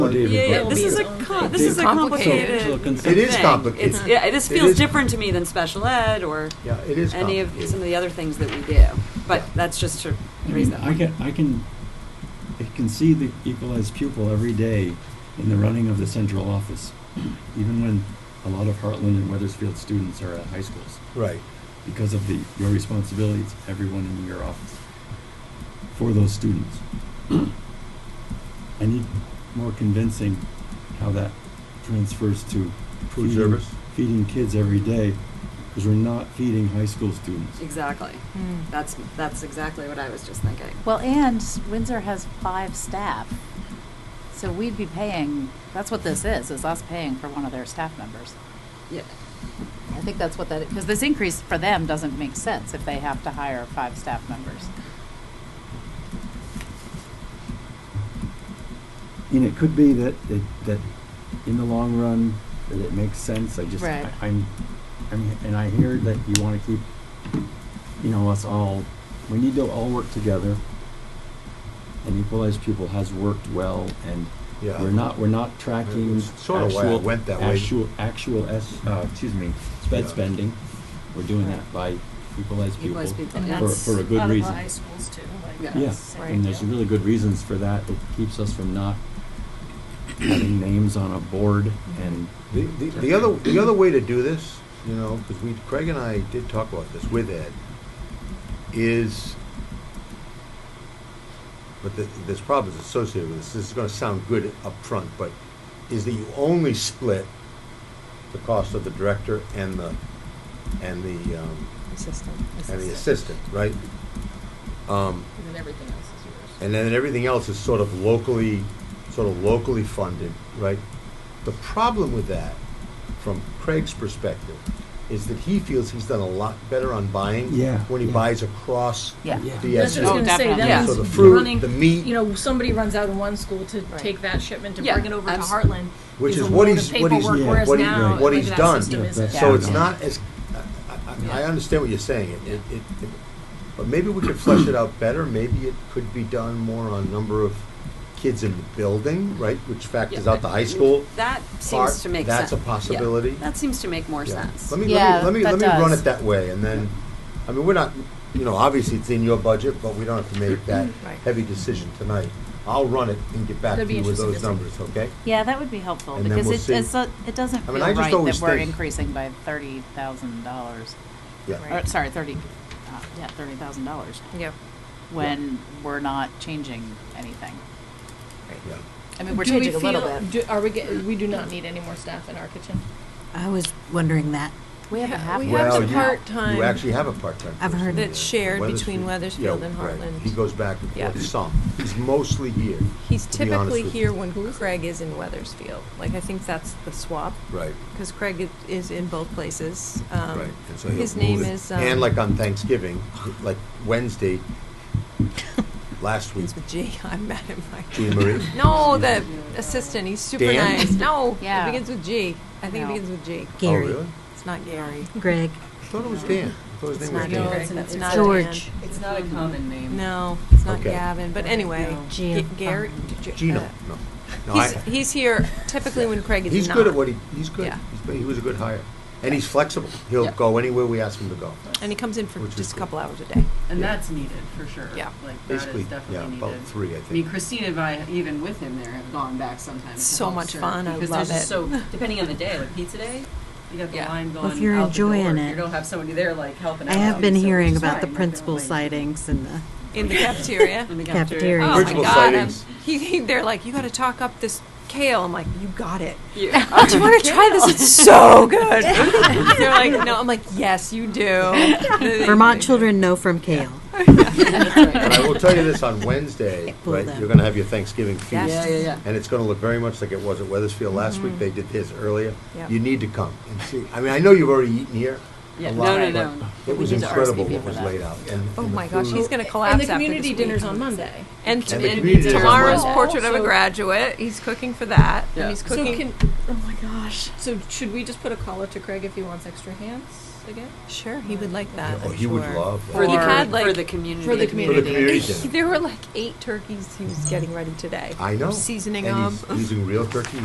Yeah, This is a, co- this is a complicated. It is thing. complicated. It's, yeah, this It feels is- different to me than special ed or Yeah, it is any of, complicated. some of the other things that we do. But that's just to I raise mean, that I point. can, I can, I can see the equalized pupil every day in the running of the central office, even when a lot of Heartland and Weathersfield students are at high schools, Right. because of the, your responsibilities, everyone in your office, for those students. I need more convincing how that transfers to Food feeding- service? feeding kids every day, because we're not feeding high school students. Exactly. That's, that's exactly what I was just thinking. Well, and Windsor has five staff, so we'd be paying, that's what this is, is us paying for one of their staff members. Yeah, I think that's what that, because this increase for them doesn't make sense if they have to hire five staff members. And it could be that, that, that in the long run, that it makes sense, I just, Right. I- I'm, I'm, and I hear that you wanna keep, you know, us all, we need to all work together. And equalized pupil has worked well, and Yeah. we're not, we're not tracking It's sorta why I actual- went that way. Actual, actual S, uh, excuse me, Yeah. sped spending, we're doing Right. that by equalized pupil. equalized people, And yeah. For- that's for a good out of reason. high schools too, like. Yeah. Yeah, same and there's deal. really good reasons for that. It keeps us from not having names on a board and, The, the, the other, the other way to do this, you know, because we, Craig and I did talk about this with Ed, is, but the, this problem is associated with this, this is gonna sound good up front, but is that you only split the cost of the director and the, and the, um, Assistant. and the assistant, right? Um, And then everything else is yours. and then everything else is sort of locally, sort of locally funded, right? The problem with that, from Craig's perspective, is that he feels he's done a lot better on buying Yeah, when he yeah. buys across Yeah. Yeah. the That's what I SU. was gonna say, definitely. that So the means fruit, the running, you meat, know, somebody runs out in one school to Right. take that shipment to Yeah, bring it over to abs- Heartland. which a is what load of he's, what he's, paperwork, yeah, Whereas what he, now, what like, he's that done. system Yeah, isn't. that's- So it's Yeah. not as, I, I, I Yeah. understand what you're saying, it, it, it- but maybe we could flesh it out better, maybe it could be done more on number of kids in the building, right, which factors Yeah, out the high school. That part, seems to make that's sense. a possibility. Yeah, That seems to make more Yeah. sense. Let me, Yeah, let me, let that me, let me run does. it that way, and then, I mean, we're not, you know, obviously it's in your budget, but we don't have to make that Right. heavy decision tonight. I'll run it and get back to That'd be you with those interesting to numbers, okay? Yeah, that would be helpful, And then because we'll it, see. it's, a- it doesn't I feel mean, I just right that always we're think- increasing by thirty thousand dollars. Yeah, Or, Oh, sorry, thirty, uh, yeah, thirty thousand dollars, Yeah. when we're not changing anything. yeah. I mean, we're Do we changing a little feel- bit. do- Are we, get- we do not need any more staff in our kitchen? I was wondering that. We have a half. We Well, have the you- part-time. You actually have a part-time. I've person heard there. that's shared between Weathersfield yeah, and right. Heartland. He goes back and Yeah. forth some. He's mostly here, He's to be honest typically with here you. when Craig is in Weathersfield. Like, I think that's the swap, right, because Craig i- is in both places. Um, right. And so he'll His move name it. is. um, And like on Thanksgiving, like Wednesday, last week, Oh, It's with G, I'm mad at Mike. Jean Marie. No, the assistant, he's super Dan? nice. No, it Yeah. begins with G. I think it No. begins with G. Oh, Gary, really? It's not Gary. Greg, I thought it was Dan. I thought his It's name was not Dan. Gary. That's not George, Dan. It's not a common name. No, it's not Okay. Gavin, but anyway. Gio- G- Gary. Oh. G- Gino. uh, No. No, I- He's, he's here typically when Craig is He's not. good at what he, he's good. Yeah. He's, he was a good hire. And he's flexible. He'll Yeah. go anywhere we ask him to go. And he comes in for Which is just a good. couple hours a day. And Yeah. that's needed, for sure. Yeah. Like, that Basically, is yeah, definitely about needed. three, I I mean, think. Christine and I, even with him there, have gone back sometimes. to So help much serve, fun, I because love there's just it. so, depending on the day, like pizza day, you got the Yeah. line Well, going if you're out the door. enjoying You it. don't have somebody there like helping I out. have been so it's hearing fine, about the like, principal like- sightings and the, In the cafeteria. in the Cafeteria. oh my Principal god! I'm- sightings. He, he, they're like, you got to talk up this kale. I'm like, you got it. Yeah. Oh, do you want to try this? It's so good. they're like, no. I'm like, yes, you do. Vermont children know from kale. And I will tell you this, on Wednesday, Pull right, them. you're gonna have your Thanksgiving Yeah, feast. yeah, yeah. And it's gonna look very much like it was at Weathersfield last Mm-hmm. week. They did this earlier. Yep. You need to come and see. I mean, I know you've already eaten here. a Yeah, lot, no, no, but no. It was need to incredible RSVP what for was that. laid out. and- Oh and the my gosh, food. he's gonna collapse And the after this community week. dinner's on Monday. And, And t- the and community dinner's on tomorrow's Monday. portrait of a So- graduate. He's cooking for that. Yeah. And he's So cooking. can, oh my gosh. So should we just put a call out to Craig if he wants extra hands? again? Sure, he would like that. Oh, I'm he would sure. love that. For he the, had com- like for the community. For For the the community. community dinner. there were like eight turkeys he was getting ready today. I know. Seasoning and them. He's using real turkey